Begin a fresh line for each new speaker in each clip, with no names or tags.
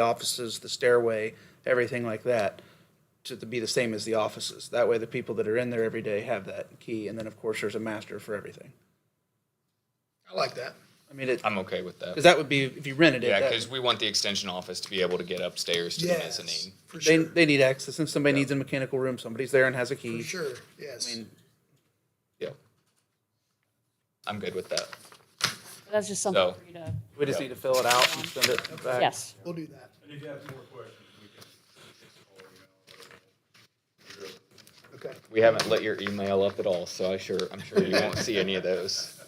the offices, the stairway, everything like that, to be the same as the offices. That way, the people that are in there every day have that key, and then, of course, there's a master for everything.
I like that.
I mean, it,
I'm okay with
because
that.
that would be, if you rented it,
Yeah,
that-
because we want the extension office to be able to get upstairs to the
Yes,
mezzanine.
for
they,
sure,
they need access, and somebody needs a mechanical room, somebody's there and has a
for
key.
sure, yes.
Yeah. I'm good with that.
That's just something
So-
for you to,
We just need to fill it out and send it back.
yes.
We'll do that.
And if you have more questions, we can.
Okay.
We haven't lit your email up at all, so I sure, I'm sure you won't see any of those.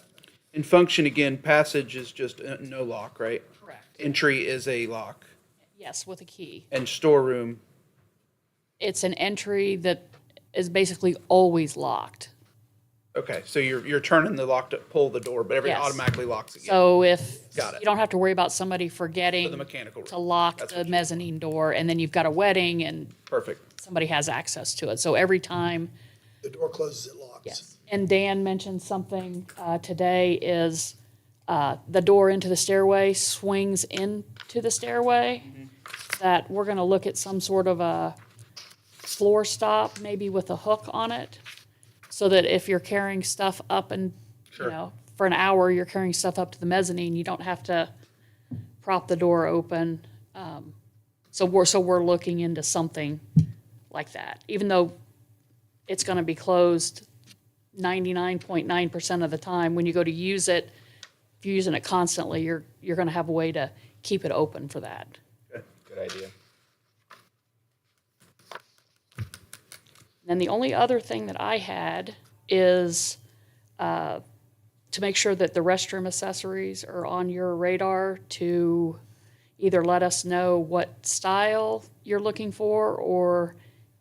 And function, again, passage is just uh, no lock, right?
Correct.
Entry is a lock,
Yes, with a key.
and storeroom,
It's an entry that is basically always locked.
okay, so you're, you're turning the lock to pull the door, but everything
Yes.
automatically locks again.
So if,
Got it.
you don't have to worry about somebody forgetting
the mechanical room.
to lock
That's
the
what you-
mezzanine door, and then you've got a wedding and
Perfect.
somebody has access to it. So every time,
The door closes, it locks.
Yes. And Dan mentioned something uh, today is uh, the door into the stairway swings into the stairway. That we're going to look at some sort of a floor stop, maybe with a hook on it. So that if you're carrying stuff up and, you
Sure.
know, for an hour, you're carrying stuff up to the mezzanine, you don't have to prop the door open. Um, So we're, so we're looking into something like that, even though it's going to be closed 99.9% of the time. When you go to use it, if you're using it constantly, you're, you're going to have a way to keep it open for that.
Good idea.
Then the only other thing that I had is uh, to make sure that the restroom accessories are on your radar to either let us know what style you're looking for or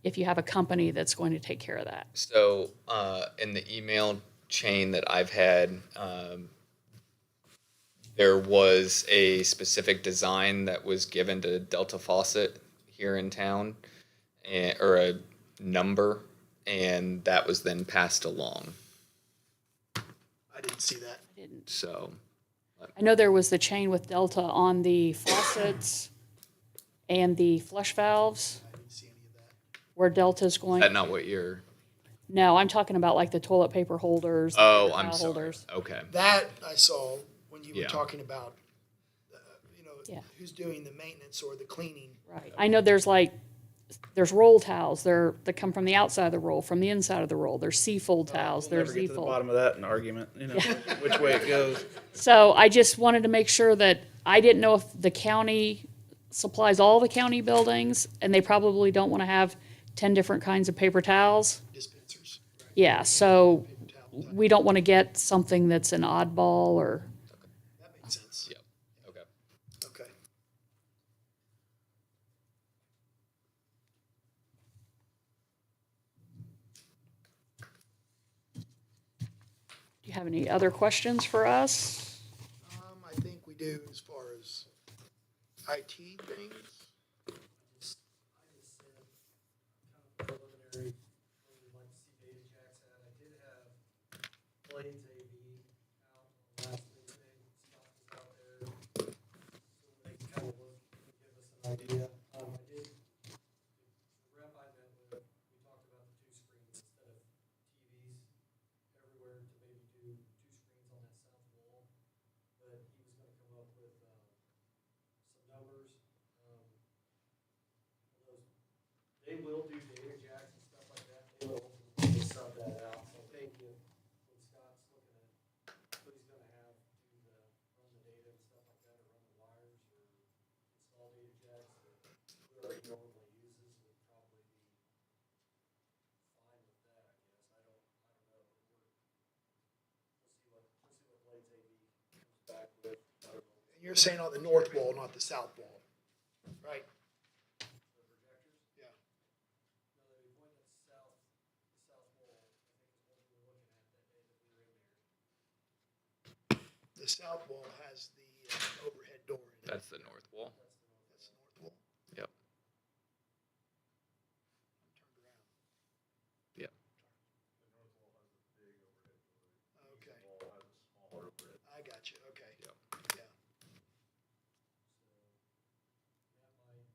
if you have a company that's going to take care of that.
So, uh, in the email chain that I've had, um, there was a specific design that was given to Delta Faucet here in town, and, or a number, and that was then passed along.
I didn't see that.
So,
I know there was the chain with Delta on the faucets and the flush valves
I didn't see any of that.
where Delta's
is
going.
that not what you're?
No, I'm talking about like the toilet paper holders.
Oh,
the
I'm
towel
sorry.
holders.
Okay.
That I saw when you were
Yeah.
talking about, uh, you
Yeah.
know, who's doing the maintenance or the cleaning.
Right. I know there's like, there's roll towels. They're, that come from the outside of the roll, from the inside of the roll. There's C-fold towels.
Uh, We'll
There's
never get to the
Z-fold.
bottom of that in argument, you know, which way it goes.
So I just wanted to make sure that, I didn't know if the county supplies all the county buildings and they probably don't want to have 10 different kinds of paper towels.
dispensers. right?
Yeah, so
Towel,
we don't want to get something that's an oddball or,
That makes sense.
Yep. Okay.
Okay.
do you have any other questions for us?
Um, I think we do as far as IT things.
preliminary, really like to see David Jackson. I did have Blaine's AV out last meeting, Scott was out there. So they can kind of look, and give us an idea. Um, I did, the rep I met with, we talked about the two screens instead of TVs everywhere to maybe do two screens on that south wall. But he was gonna come up with, um, some numbers, um, those they will do data jacks and stuff like that, they will ultimately sub that out, so thank you. When Scott's looking at what he's gonna have to do the, run the data and stuff like that, or run the wires, or install data jacks, or whoever he normally uses would probably be fine with that, I guess, I don't, I don't know, but we're, we'll see what, we'll see what Blades AV comes back with, I don't know.
And you're saying on the north wall, not the south wall, right? The south wall has the uh, overhead door in it. uh,
That's the north wall.